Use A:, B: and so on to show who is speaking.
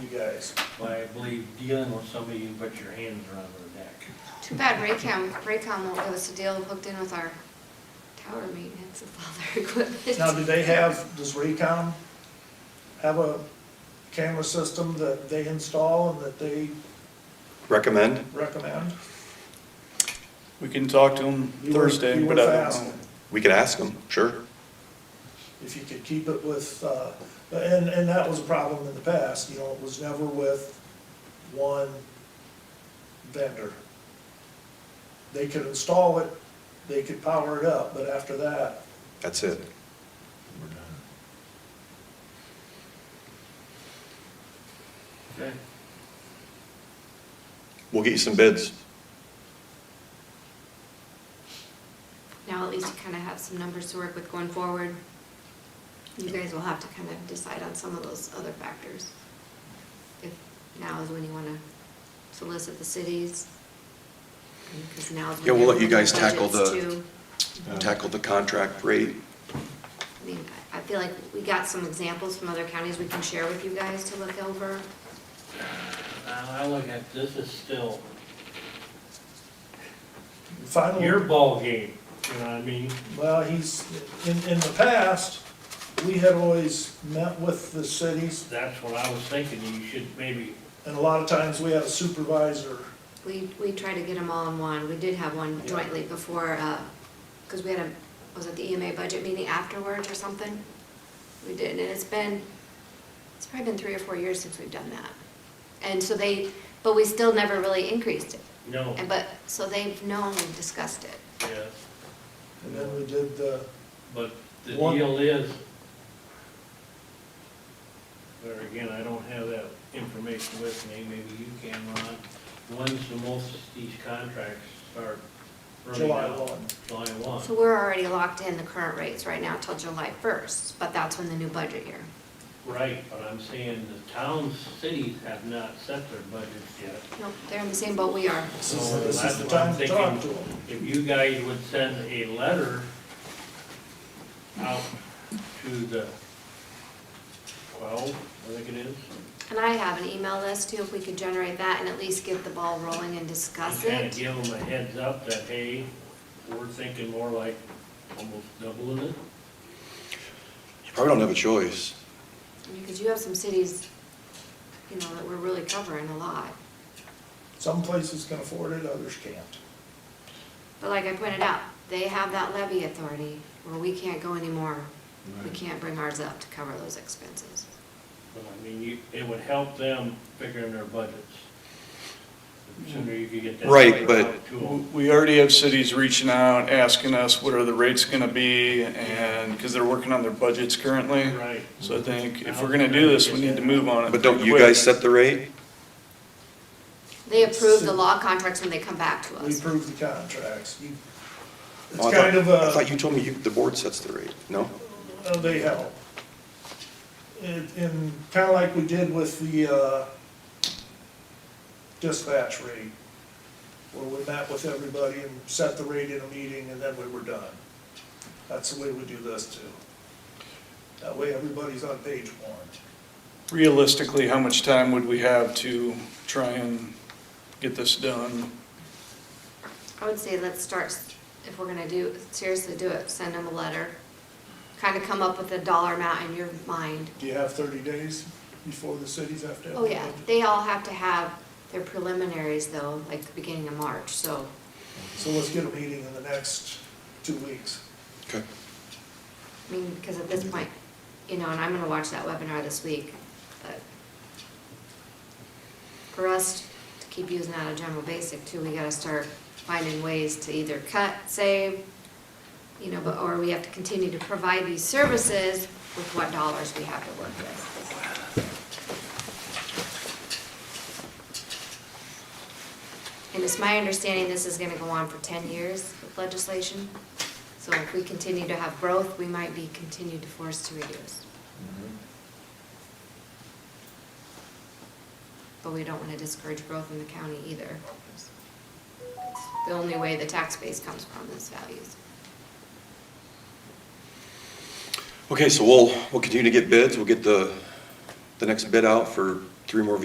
A: guys.
B: I believe dealing with somebody, you put your hands around their neck.
C: Too bad Raycom, Raycom won't give us a deal hooked in with our tower maintenance of all their
A: Now,
C: equipment.
A: do they have, does Recom have a camera system that they install and that they
D: Recommend?
A: recommend?
E: We can talk to them
A: You were-
E: Thursday,
A: you
E: but
A: were
E: I
A: fast.
E: don't know.
D: We could ask them, sure.
A: If you could keep it with, uh, and, and that was a problem in the past, you know, it was never with one vendor. They could install it, they could power it up, but after that,
D: That's it.
B: Okay.
D: We'll get you some bids.
C: Now at least you kind of have some numbers to work with going forward. You guys will have to kind of decide on some of those other factors. If now is when you want to solicit the cities. Because now is when.
D: Yeah, we'll let you
C: everyone's
D: guys tackle
C: budgets
D: the-
C: too.
D: Tackle the contract rate.
C: I mean, I I feel like we got some examples from other counties we can share with you guys to look over.
B: I I look at, this is still
A: final.
B: your ballgame, you know what I mean?
A: Well, he's, in, in the past, we had always met with the cities,
B: That's what I was thinking, you should maybe,
A: and a lot of times we had a supervisor.
C: We, we tried to get them all in one. We did have one
A: Yeah.
C: jointly before, because we had a, was it the EMA budget meeting afterwards or something? We did, and it's been, it's probably been three or four years since we've done that. And so they, but we still never really increased it.
B: no,
C: And but, so they've known and discussed it.
B: yeah.
A: And then we did the,
B: But the
A: One-
B: deal is, there again, I don't have that information with me, maybe you can, Ron. When's the most of these contracts start running
A: July
B: out?
A: one.
B: July one.
C: So we're already locked in the current rates right now till July 1st, but that's when the new budget year.
B: Right, but I'm saying the towns, cities have not set their budgets yet.
C: Nope, they're in the same boat we are.
A: this
B: So
A: is, this
B: that's
A: is the
B: what I'm
A: time to talk to
B: thinking.
A: them.
B: If you guys would send a letter out to the twelve, I think it is.
C: And I have an email list too, if we could generate that and at least get the ball rolling and discuss
B: And kind of
C: it.
B: give them a heads up that, hey, we're thinking more like almost doubling it.
D: You probably don't have a choice.
C: Because you have some cities, you know, that we're really covering a lot.
A: Some places can afford it, others can't.
C: But like I pointed out, they have that levy authority where we can't go anymore. We can't bring ours up to cover those expenses.
B: But I mean, you, it would help them figuring their budgets. The Sooner you could get that.
D: Right,
B: right
D: but-
B: out to 'em.
E: W- We already have cities reaching out, asking us what are the rates gonna be, and, because they're working on their budgets currently.
B: Right.
E: So I think if we're gonna do this, we need to move on it.
D: But don't you
E: quick.
D: guys set the rate?
C: They approve the law contracts when they come back to
A: We
C: us.
A: approve the contracts. You-
D: Oh,
A: It's
D: I thought-
A: kind of
D: I
A: a,
D: thought you told me you, the board sets the rate, no?
A: uh, they help. And, and kind of like we did with the, uh, dispatch rate, where we met with everybody and set the rate in a meeting, and then we were done. That's the way we do this too. That way, everybody's on page one.
E: Realistically, how much time would we have to try and get this done?
C: I would say let's start, if we're gonna do, seriously do it, send them a letter. Kind of come up with a dollar amount in your mind.
A: Do you have thirty days before the cities have to have?
C: Oh,
A: their
C: yeah,
A: budget?
C: they all have to have their preliminaries though, like the beginning of March, so
A: So let's get a meeting in the next two weeks.
D: Okay.
C: I mean, because at this point, you know, and I'm gonna watch that webinar this week, but for us to keep using that a general basic too, we gotta start finding ways to either cut, save, you know, but, or we have to continue to provide these services with what dollars we have to work with. And it's my understanding this is gonna go on for ten years with legislation. So if we continue to have growth, we might be continued to force to reduce. But we don't want to discourage growth in the county either. It's The only way the tax base comes from is values.
D: Okay, so we'll, we'll continue to get bids. We'll get the, the next bid out for three more